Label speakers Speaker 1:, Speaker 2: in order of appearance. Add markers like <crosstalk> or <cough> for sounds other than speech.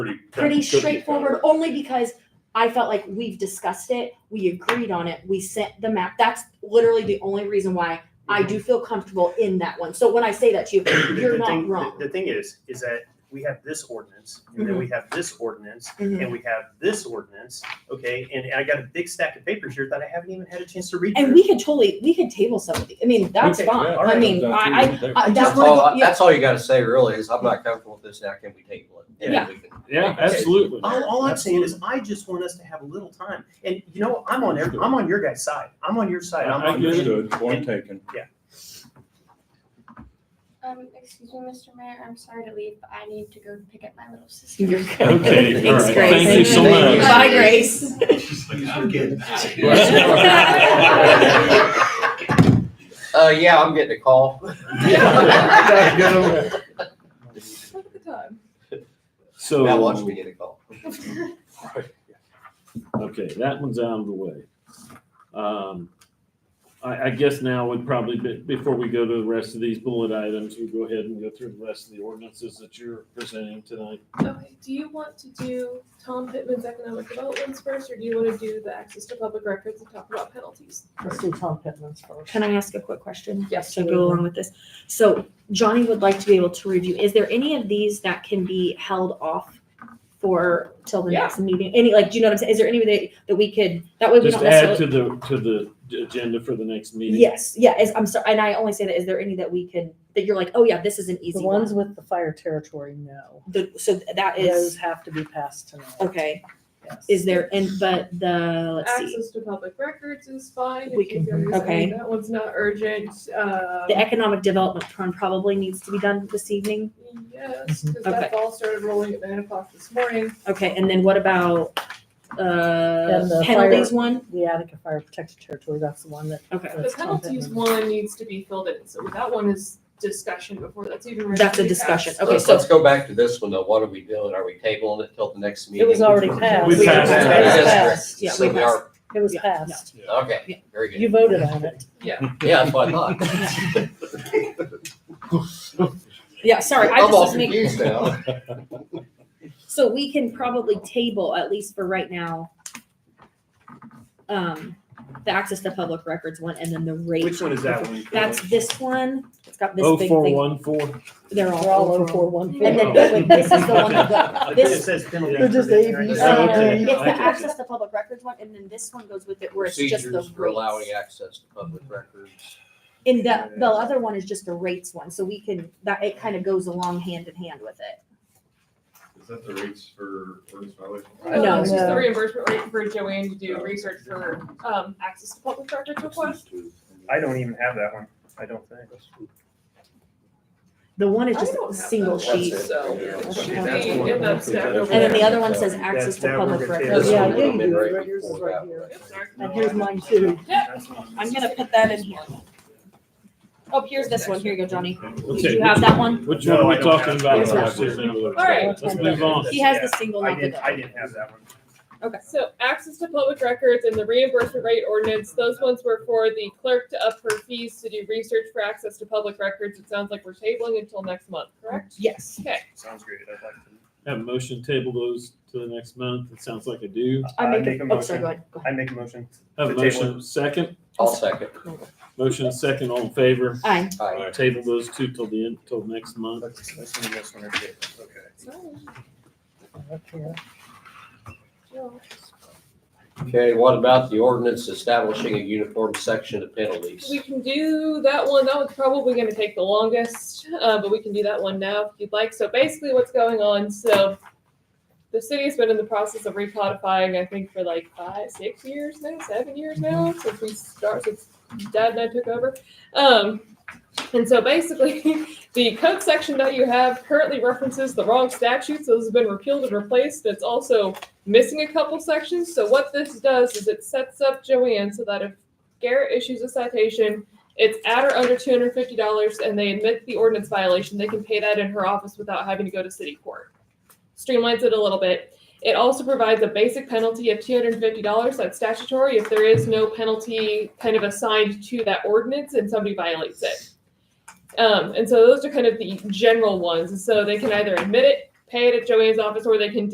Speaker 1: pretty. cookie
Speaker 2: pretty
Speaker 1: cutter.
Speaker 2: straightforward, Oh, only because I felt like we've discussed it, we agreed on it, we sent the map. That's literally the only reason why I do feel comfortable in that one. So when I say that to
Speaker 3: <coughs>
Speaker 2: you,
Speaker 3: The-
Speaker 2: you're
Speaker 3: the
Speaker 2: not
Speaker 3: thing- the-
Speaker 2: wrong.
Speaker 3: The thing is, is that we have this ordinance, and then we have this ordinance,
Speaker 2: Mhm.
Speaker 3: and we have this ordinance, okay? And I got a big stack of papers here that I haven't even had a chance to read.
Speaker 2: And
Speaker 3: through.
Speaker 2: we could totally, we could table some of these. I mean, that's
Speaker 3: Okay,
Speaker 2: fine.
Speaker 3: yeah,
Speaker 2: I
Speaker 3: alright.
Speaker 2: mean, I, I, I, that's
Speaker 4: That's
Speaker 2: what,
Speaker 4: all,
Speaker 2: I- yeah,
Speaker 4: that's all you gotta say really is, I'm not comfortable with this, now can we table it? And
Speaker 2: Yeah.
Speaker 4: we can-
Speaker 5: Yeah, absolutely.
Speaker 3: All, all I'm saying is, I just want us to have a little time, and you know, I'm on, every- I'm on your guys' side, I'm on your side, I'm
Speaker 5: I- I
Speaker 3: on your
Speaker 5: get it.
Speaker 1: Understood, point taken.
Speaker 6: Um, excuse me, Mr. Mayor, I'm sorry to leave, but I need to go pick up my little sister. <laughs>
Speaker 2: You're good.
Speaker 5: Okay, all
Speaker 2: Thanks,
Speaker 5: right.
Speaker 2: Grace.
Speaker 5: Thank you so
Speaker 4: Thank you.
Speaker 5: much.
Speaker 2: Bye, Grace.
Speaker 3: <laughs>
Speaker 2: <laughs>
Speaker 4: Uh, yeah, I'm getting a call. <laughs> Now
Speaker 6: Look at the time.
Speaker 5: So.
Speaker 4: watch me get a call.
Speaker 5: Okay, that one's out of the way. Um, I, I guess now would probably, be- before we go to the rest of these bullet items, we go ahead and go through the rest of the ordinances that you're presenting tonight.
Speaker 7: Okay, do you want to do Tom Pittman's economic developments first, or do you want to do the access to public records and talk about penalties?
Speaker 8: Let's do Tom Pittman's first.
Speaker 2: Can I ask a quick question?
Speaker 8: Yes,
Speaker 2: To go along with this. So Johnny would like to be able to review, is there any of these that can be held off for till the
Speaker 8: Yeah.
Speaker 2: next meeting? Any, like, do you know what I'm saying? Is there any that, that we could, that way we
Speaker 5: Just
Speaker 2: don't
Speaker 5: add
Speaker 2: necessarily?
Speaker 5: to the, to the d- agenda for the next meeting.
Speaker 2: Yes, yeah, is, I'm sorry, and I only say that, is there any that we can, that you're like, oh yeah, this is an
Speaker 8: The
Speaker 2: easy
Speaker 8: ones
Speaker 2: one?
Speaker 8: with the fire territory, no.
Speaker 2: The, so that
Speaker 8: Those
Speaker 2: is,
Speaker 8: have to be passed tonight.
Speaker 2: okay,
Speaker 8: Yes.
Speaker 2: is there, and, but the, let's see,
Speaker 7: Access to public records is fine. if
Speaker 2: We
Speaker 7: you
Speaker 2: can-
Speaker 7: guys- I mean,
Speaker 2: okay.
Speaker 7: That one's not urgent, uh.
Speaker 2: the economic development plan probably needs to be done this evening?
Speaker 7: Yes, because
Speaker 2: Mm-hmm. Okay.
Speaker 7: that all started rolling at nine o'clock this morning.
Speaker 2: Okay, and then what about, uh,
Speaker 8: And the fire-
Speaker 2: penalties one?
Speaker 8: The Attica Fire Protected Territory, that's the one that.
Speaker 2: Okay,
Speaker 7: The
Speaker 8: that's Tom
Speaker 7: penalties
Speaker 8: Pittman.
Speaker 7: one needs to be filled in, so that one is discussion before that's even. ready
Speaker 2: that's
Speaker 7: to
Speaker 2: a
Speaker 7: be
Speaker 2: discussion,
Speaker 7: passed.
Speaker 2: okay,
Speaker 4: Let's,
Speaker 2: so
Speaker 4: let's go back to this one though, what are we doing? Are we tabling it till the next meeting?
Speaker 8: It was already passed.
Speaker 5: We passed
Speaker 2: Yeah,
Speaker 5: it.
Speaker 8: It was passed.
Speaker 2: we
Speaker 4: So we are,
Speaker 8: It was
Speaker 2: Yeah,
Speaker 8: passed.
Speaker 4: okay, very
Speaker 8: You
Speaker 4: good.
Speaker 8: voted on it.
Speaker 4: Yeah, that's what I thought.
Speaker 2: Yeah, sorry, I
Speaker 4: I'm
Speaker 2: just
Speaker 4: all
Speaker 2: was making,
Speaker 4: confused now.
Speaker 2: so we can probably table, at least for right now, um, the access to public records one and then the rate.
Speaker 3: Which one is that one?
Speaker 2: That's this one, it's got this
Speaker 5: Oh,
Speaker 2: big
Speaker 5: four,
Speaker 2: thing,
Speaker 5: one, four.
Speaker 2: they're
Speaker 8: They're all
Speaker 2: all
Speaker 8: over
Speaker 2: overall.
Speaker 8: four one
Speaker 2: And then
Speaker 8: four.
Speaker 2: this one- this is the one that got,
Speaker 3: It
Speaker 2: this-
Speaker 3: says penalty.
Speaker 8: They're just A, B,
Speaker 3: Right.
Speaker 8: C.
Speaker 5: Oh,
Speaker 2: <laughs>
Speaker 5: okay.
Speaker 2: it's the
Speaker 5: I get you.
Speaker 2: access to public records one, and then this one goes with it where it's just the
Speaker 4: Procedures for allowing
Speaker 2: rates.
Speaker 4: access to public records.
Speaker 2: And the, the other one is just the rates one, so we can, that, it kind of goes along hand in hand with it.
Speaker 9: Is that the rates for ordinance violation?
Speaker 2: Oh,
Speaker 7: No, it's just
Speaker 8: No.
Speaker 7: the reimbursement rate for Joanne to do research for, um, access to public records request.
Speaker 3: I don't even have that one, I don't think.
Speaker 2: The one is
Speaker 7: I
Speaker 2: just
Speaker 7: don't have
Speaker 2: single
Speaker 7: that.
Speaker 4: That's
Speaker 2: sheet.
Speaker 4: it.
Speaker 7: So-
Speaker 4: Yeah.
Speaker 7: That's one. In that stack over
Speaker 2: And then the other one says
Speaker 4: That's-
Speaker 2: access to
Speaker 3: that
Speaker 2: public
Speaker 3: we're gonna
Speaker 2: records.
Speaker 4: This
Speaker 8: Yeah,
Speaker 4: one
Speaker 8: I
Speaker 4: would have
Speaker 8: gave
Speaker 4: been
Speaker 8: you
Speaker 4: right
Speaker 8: right- yours is
Speaker 4: before
Speaker 8: right
Speaker 4: that,
Speaker 8: here.
Speaker 7: Yep, sorry.
Speaker 8: And here's mine too.
Speaker 3: That's one.
Speaker 2: I'm gonna put that in here. Oh, here's this one. Here you go, Johnny.
Speaker 5: Okay,
Speaker 2: Did you have that one?
Speaker 5: Which
Speaker 3: No,
Speaker 5: one are we
Speaker 3: I don't have
Speaker 5: talking
Speaker 3: it.
Speaker 5: about?
Speaker 2: It's not.
Speaker 5: All
Speaker 7: right.
Speaker 5: Let's move on.
Speaker 2: He has
Speaker 3: Yeah,
Speaker 2: the single,
Speaker 3: I
Speaker 2: not the
Speaker 3: didn't,
Speaker 2: double.
Speaker 3: I didn't have that one.
Speaker 7: So access to public records and the reimbursement rate ordinance, those ones were for the clerk to up her fees to do research for access to public records. It sounds like we're tabling until next month, correct?
Speaker 2: Yes.
Speaker 7: Okay,
Speaker 3: Sounds great, I'd like to.
Speaker 5: Have a motion table those to the next month. It sounds like I do.
Speaker 2: I
Speaker 3: I
Speaker 2: make,
Speaker 3: make a
Speaker 2: a- oh, sorry, go
Speaker 3: motion,
Speaker 2: ahead. Go ahead.
Speaker 3: I make a motion.
Speaker 5: Have
Speaker 3: To
Speaker 5: a
Speaker 3: table
Speaker 5: motion second,
Speaker 4: I'll second.
Speaker 5: motion second, all in favor.
Speaker 2: Aye.
Speaker 4: Aye.
Speaker 5: Table those two till the end, till next month.
Speaker 3: Let's, let's do this one, okay.
Speaker 8: Okay.
Speaker 4: Okay, what about the ordinance establishing a uniform section of penalties?
Speaker 7: we can do that one. That one's probably gonna take the longest, uh, but we can do that one now if you'd like. So basically what's going on, so the city has been in the process of recodifying, I think, for like five, six years now, seven years now, since we start, since Dad and I took over. Um, and so basically, <laughs> the code section that you have currently references the wrong statute, so this has been repealed and replaced. It's also missing a couple sections. So what this does is it sets up Joanne so that if Garrett issues a citation, it's at or under two hundred fifty dollars, and they admit the ordinance violation, they can pay that in her office without having to go to city court. Streamlines it a little bit. It also provides a basic penalty of two hundred fifty dollars, that's statutory, if there is no penalty kind of assigned to that ordinance and somebody violates it. Um, and so those are kind of the general ones, so they can either admit it, pay it at Joanne's office, or they can